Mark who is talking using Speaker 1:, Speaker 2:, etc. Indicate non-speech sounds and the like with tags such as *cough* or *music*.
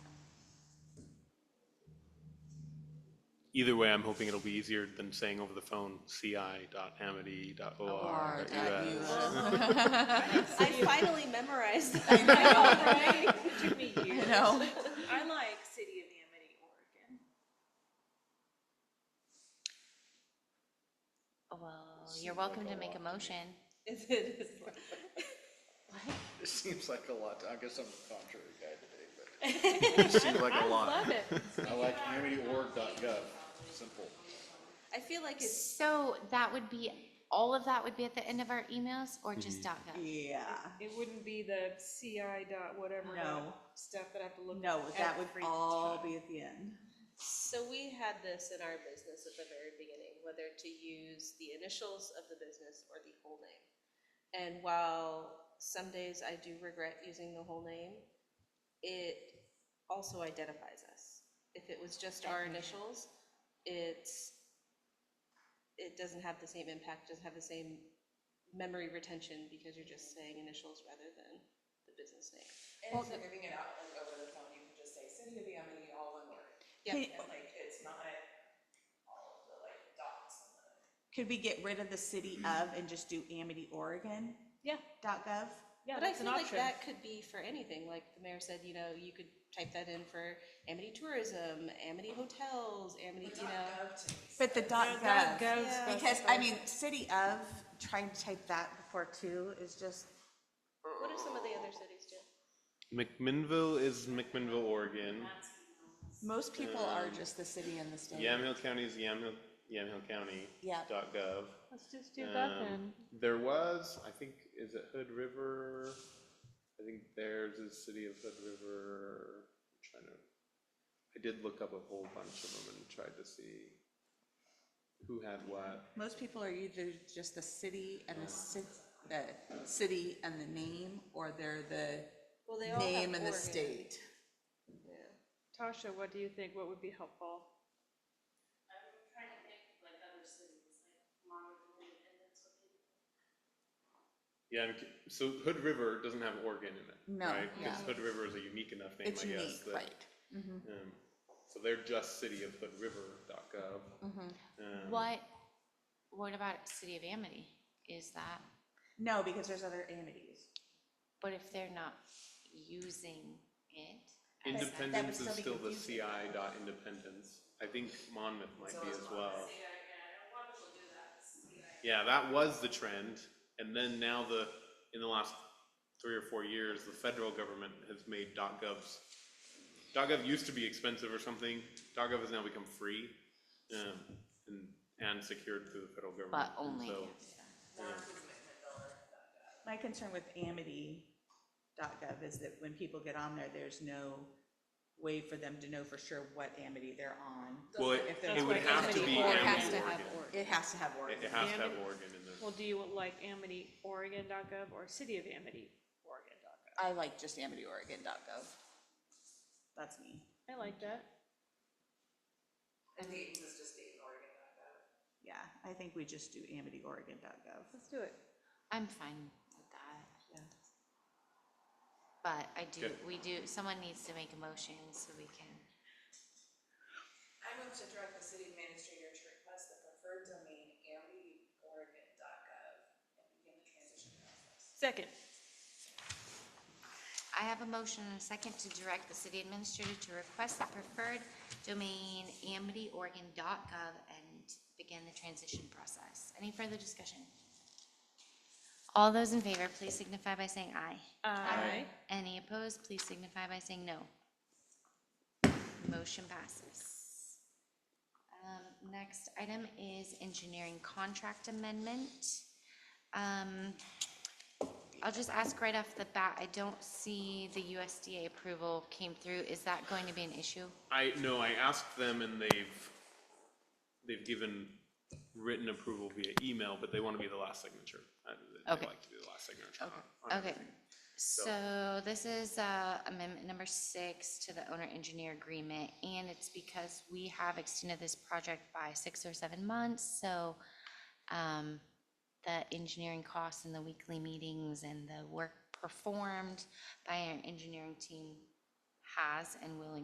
Speaker 1: either way, I'm hoping it'll be easier than saying over the phone, ci.amity.or.us.
Speaker 2: I finally
Speaker 3: *laughs*
Speaker 2: memorized.
Speaker 3: I know,
Speaker 2: that.
Speaker 3: right? It took me
Speaker 2: *laughs*
Speaker 3: years.
Speaker 2: know.
Speaker 3: I like City of Amity, Oregon.
Speaker 4: Well, you're welcome to make a motion.
Speaker 3: Is it, is it-
Speaker 5: It seems like a lot. I guess I'm the contrary guy today, *laughs* but it seems like a
Speaker 3: love
Speaker 5: lot.
Speaker 3: it.
Speaker 5: I like amity.org.gov. Simple.
Speaker 2: I feel like it's,
Speaker 4: So that would be, all of that would be at the end of our emails or just dot gov?
Speaker 6: Yeah,
Speaker 3: It wouldn't be the CI dot whatever
Speaker 6: No.
Speaker 3: dot stuff that I have to look at.
Speaker 6: no, that would
Speaker 3: every
Speaker 6: all
Speaker 3: time.
Speaker 6: be at the end.
Speaker 2: so we had this in our business at the very beginning, whether to use the initials of the business or the whole name. And while some days I do regret using the whole name, it also identifies us. If it was just our initials, it's, it doesn't have the same impact, doesn't have the same memory retention because you're just saying initials rather than the business name.
Speaker 7: And if you're giving it out like over the phone, you can just say city of Amity, all one word.
Speaker 2: Yeah.
Speaker 6: Could-
Speaker 7: And like, it's not all of the like dots and the. Mm-hmm.
Speaker 6: Could we get rid of the city of and just do Amity, Oregon?
Speaker 3: Yeah.
Speaker 6: Dot gov?
Speaker 3: Yeah,
Speaker 2: But I
Speaker 3: that's an
Speaker 2: feel like
Speaker 3: option.
Speaker 2: that could be for anything, like the mayor said, you know, you could type that in for Amity Tourism, Amity Hotels, Amity, you know.
Speaker 7: Up to me.
Speaker 6: But the dot gov,
Speaker 3: dot gov's supposed
Speaker 6: because,
Speaker 3: to
Speaker 6: I
Speaker 3: go.
Speaker 6: mean, city of, trying to type that before two is just,
Speaker 2: What do some of the other cities do?
Speaker 1: McMinnville is McMinnville, Oregon.
Speaker 6: most people are
Speaker 7: Mm.
Speaker 6: just the city and the state.
Speaker 1: Yamhill County is Yamhill, Yamhill County.
Speaker 6: Yeah.
Speaker 1: Dot gov.
Speaker 3: Let's just do that
Speaker 1: Um,
Speaker 3: then.
Speaker 1: There was, I think, is it Hood River? I think theirs is City of Hood River. I'm trying to, I did look up a whole bunch of them and tried to see who had what.
Speaker 6: Most people are either just the city and the ci- the city and the name, or they're the
Speaker 2: Well, they all have
Speaker 6: name and the
Speaker 2: Oregon.
Speaker 6: state.
Speaker 3: Tasha, what do you think? What would be helpful?
Speaker 1: Yeah, I'm cu- so Hood River doesn't have Oregon in it,
Speaker 6: No,
Speaker 1: right? Because
Speaker 6: yeah.
Speaker 1: Hood River is a unique enough name, I
Speaker 6: It's
Speaker 1: guess.
Speaker 6: unique,
Speaker 1: that-
Speaker 6: right?
Speaker 1: um, So they're just City of Hood River.gov.
Speaker 6: Mm-hmm.
Speaker 1: Um,
Speaker 4: What, what about City of Amity? Is that,
Speaker 6: No, because there's other amities.
Speaker 4: but if they're not using it? as that-
Speaker 1: Independence
Speaker 6: would
Speaker 1: is
Speaker 6: still
Speaker 1: still
Speaker 6: be
Speaker 1: the
Speaker 6: confusing.
Speaker 1: CI dot independence. I think Monmouth might be as well. Yeah, that was the trend, and then now the, in the last three or four years, the federal government has made dot govs. Dot gov used to be expensive or something, dot gov has now become free, um, and, and secured through the federal government.
Speaker 4: But
Speaker 1: and
Speaker 3: Mm-hmm.
Speaker 4: only,
Speaker 1: so-
Speaker 6: My concern with amity.gov is that when people get on there, there's no way for them to know for sure what amity they're on.
Speaker 1: Well, it-
Speaker 6: If they're
Speaker 1: it would
Speaker 3: like
Speaker 1: have to
Speaker 3: Amity
Speaker 1: be
Speaker 3: or
Speaker 1: Amity
Speaker 4: has to
Speaker 1: Oregon.
Speaker 4: have
Speaker 1: It-
Speaker 6: It has to have Oregon.
Speaker 1: It has to have
Speaker 3: Amity-
Speaker 1: Oregon in there.
Speaker 3: Well, do you like amityoregon.gov or City of Amity, Oregon.gov?
Speaker 6: I like just amityoregon.gov. That's me,
Speaker 3: I like that.
Speaker 7: I think it was just the Oregon dot gov.
Speaker 6: yeah. I think we just do amityoregon.gov.
Speaker 3: Let's do it.
Speaker 4: I'm fine with that.
Speaker 6: Yeah.
Speaker 4: But I do,
Speaker 1: Okay.
Speaker 4: we do, someone needs to make a motion so we can.
Speaker 7: I move to direct the city administrator to request the preferred domain amity Oregon dot gov and begin the transition process.
Speaker 3: Second.
Speaker 4: I have a motion and a second to direct the city administrator to request the preferred domain amityoregon.gov and begin the transition process. Any further discussion? All those in favor, please signify by saying aye.
Speaker 3: uh, Aye.
Speaker 4: Any opposed, please signify by saying no. Motion passes. Um, Next item is engineering contract amendment. Um, I'll just ask right off the bat, I don't see the USDA approval came through. Is that going to be an issue?
Speaker 1: I, no, I asked them and they've, they've given written approval via email, but they want to be the last signature. Uh, They
Speaker 4: Okay.
Speaker 1: like to be the last signature.
Speaker 4: Okay,
Speaker 1: on- on
Speaker 4: okay.
Speaker 1: everything.
Speaker 4: So this is uh, amendment number six to the owner engineer agreement, and it's because we have extended this project by six or seven months, so um, the engineering costs and the weekly meetings and the work performed by our engineering team has and will